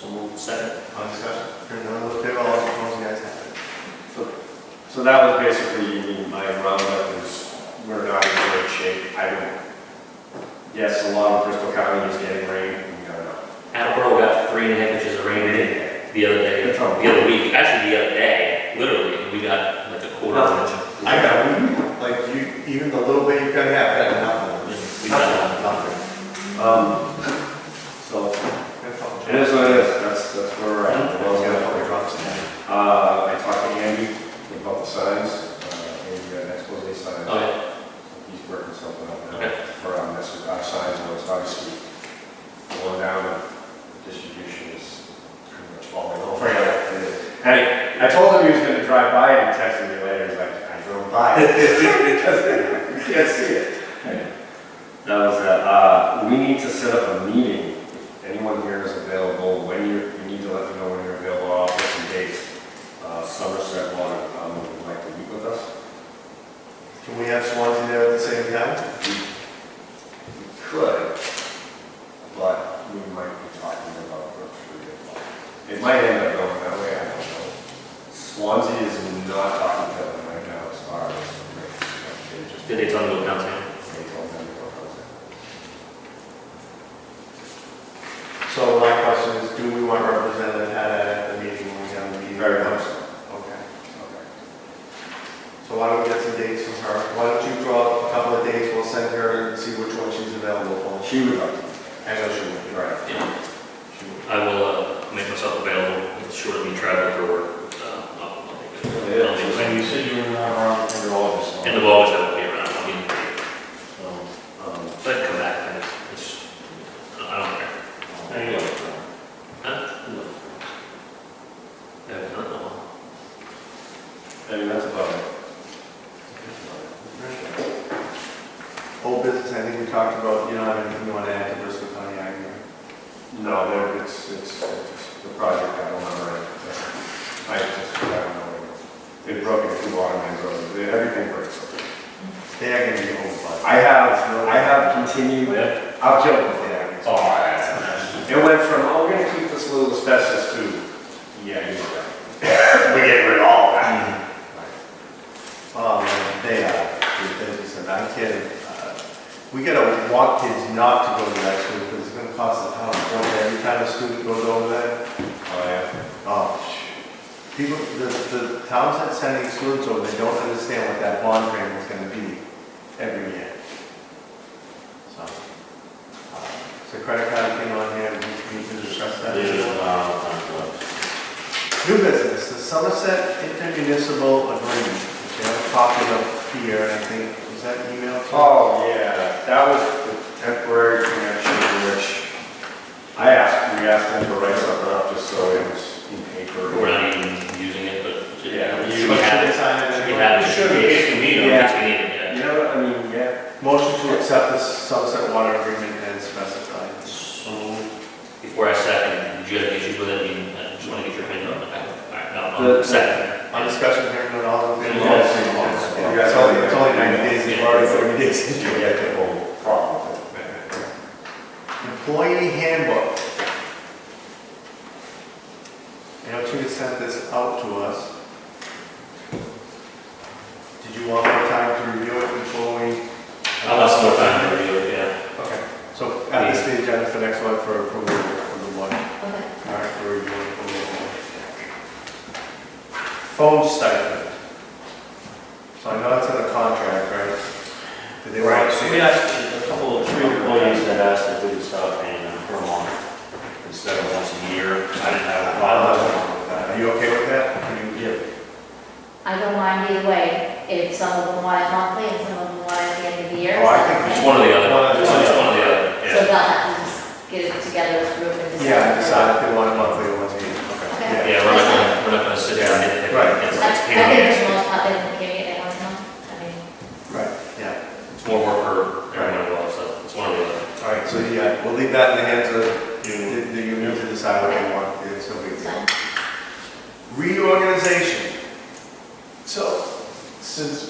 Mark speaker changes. Speaker 1: Second.
Speaker 2: On discussion, hearing none, all in favor, all opposed, the ayes have it.
Speaker 3: So that was basically my roundup is we're not in great shape. I don't, yes, a lot of Bristol County is getting rain, we don't know.
Speaker 1: Attleboro got three and a half inches of rain the other day,
Speaker 3: That's
Speaker 1: the
Speaker 3: all.
Speaker 1: other week, actually the other day, literally, we got like a quarter of an inch.
Speaker 2: I got, like, you, even the little bit you've got to have, got nothing.
Speaker 1: We got
Speaker 2: Nothing.
Speaker 3: Um, so, it is what it is, that's, that's where we're at. The well's
Speaker 2: Always got a
Speaker 3: gonna-
Speaker 2: couple drops in there.
Speaker 3: Uh, I talked to Andy about the signs, uh, Andy got an expose sign.
Speaker 1: Oh, yeah.
Speaker 3: He's working something out now
Speaker 1: Okay.
Speaker 3: for our message, our signs, and it's obviously going down, and distribution is pretty much falling over. And I told him he was gonna drive by and text me later, he's like, I drove by. Because You can't see it. That was, that. uh, we need to set up a meeting, if anyone here is available, when you, you need to let me know when you're available, I'll put some dates. Uh, Somerset Water, um, would like to meet with us.
Speaker 2: Can we have Swansea there at the same time?
Speaker 3: We could, but we might be talking about Brook Street. It might end up going that way, I don't know. Swansea is not talking to them right now as far as, they just,
Speaker 1: Did they tell me to go downtown?
Speaker 3: they told them to go home.
Speaker 2: So my question is, do we want representative had at the meeting when we have the meeting?
Speaker 3: Very much so.
Speaker 2: Okay.
Speaker 3: Okay.
Speaker 2: So why don't we get some dates from her? Why don't you draw up a couple of dates, we'll send her and see which one she's available for.
Speaker 3: She would like to,
Speaker 2: I know she would.
Speaker 3: right.
Speaker 1: Yeah.
Speaker 2: She would.
Speaker 1: I will, uh, make myself available, it's short of me traveling for work, uh, I'll, I'll make it. I'll make it.
Speaker 3: And you said you were not around for all of us.
Speaker 1: End of August, I won't be around, I'll be in,
Speaker 3: So, um,
Speaker 1: so I can come back, and it's- it's, I don't care. There you go. Huh? Yeah, I don't know.
Speaker 3: I mean, that's about it.
Speaker 2: Old business, I think we talked about, you don't have anything you want to add to Bristol County Ag Board?
Speaker 3: No, there, it's, it's, it's the project, I don't remember it. I just, I don't know. They broke into two water mains, or they- everything breaks.
Speaker 2: They are gonna be home by.
Speaker 3: I have, I have continued, I've killed it, yeah.
Speaker 1: Oh,
Speaker 3: It went from, oh, we're gonna keep this little asbestos to, yeah, you know that. We get rid of all that.
Speaker 2: Oh, man, they are, the business, and I'm kidding. Uh, We gotta want kids not to go to that school, because it's gonna cost the town, a fortune every time a student goes over there.
Speaker 3: Oh, yeah.
Speaker 2: Oh, sh- people, the, the towns that sending students over, they don't understand what that bond frame is gonna be every year. So, uh, so credit card thing on here, we need to discuss that.
Speaker 3: uh,
Speaker 2: New business, the Somerset intermunicipal agreement, which I have a copy of here, I think, was that emailed to?
Speaker 3: Oh, yeah, that was the temporary connection which I asked, we asked them to write something up just so it was in paper.
Speaker 1: We're not even using it, but.
Speaker 3: Yeah, we
Speaker 1: Should
Speaker 3: use
Speaker 1: we have
Speaker 2: Should
Speaker 1: it?
Speaker 2: they sign
Speaker 1: Should
Speaker 2: it?
Speaker 1: we have it? Should we, if we need it,
Speaker 3: Yeah.
Speaker 1: if we need it,
Speaker 3: You
Speaker 1: yeah.
Speaker 3: know, what I mean, yeah.
Speaker 2: Motion to accept the Somerset water agreement as specified.
Speaker 1: So, before I second, do you have any issues with it, I mean, I just wanna get your opinion on it. Alright, no, no,
Speaker 3: The-
Speaker 1: second.
Speaker 2: On discussion here, not all in favor?
Speaker 1: Yes.
Speaker 2: Yeah, It's only, it's only ninety days, we've already thirty days.
Speaker 3: You get the whole problem with it.
Speaker 2: Employee handbook. I know Tina sent this out to us. Did you want more time to review it before we?
Speaker 1: I'll have some more time to review it, yeah.
Speaker 2: Okay, so at this stage, that's the next one for approval for the one.
Speaker 4: Okay.
Speaker 2: All right, for review and approval. Phone stipend. So I know that's in the contract, right? Did they
Speaker 5: Right,
Speaker 2: write?
Speaker 5: so we asked, a couple of three employees had asked if we could stop paying them per month instead of once a year. I didn't have a problem with
Speaker 2: Are
Speaker 5: that.
Speaker 2: you okay with that? Can you-
Speaker 4: I don't mind either way, if some of them want it monthly and some of them want it at the end of the year.
Speaker 2: Oh, I think
Speaker 1: It's one or the
Speaker 2: One or
Speaker 1: other,
Speaker 2: the
Speaker 1: it's
Speaker 2: other.
Speaker 1: one or the other,
Speaker 4: So
Speaker 1: yeah.
Speaker 4: they'll have to just get it together as a group and decide.
Speaker 2: Yeah, I decided they want it monthly or once a year.
Speaker 4: Okay.
Speaker 2: Yeah.
Speaker 1: Yeah, we're not gonna, we're not gonna sit down and. and-
Speaker 2: Right.
Speaker 4: I
Speaker 1: It's
Speaker 4: I
Speaker 1: it's
Speaker 4: think
Speaker 1: pain in
Speaker 4: it's
Speaker 1: the ass.
Speaker 4: most probably the period they want to know. I mean,
Speaker 2: Right, yeah.
Speaker 1: It's more work for everyone involved, so it's one or the other.
Speaker 2: All right, so yeah, we'll leave that in the hands of the the union to decide what they want, it's no big deal.
Speaker 4: so-
Speaker 2: Reorganization. So, since uh,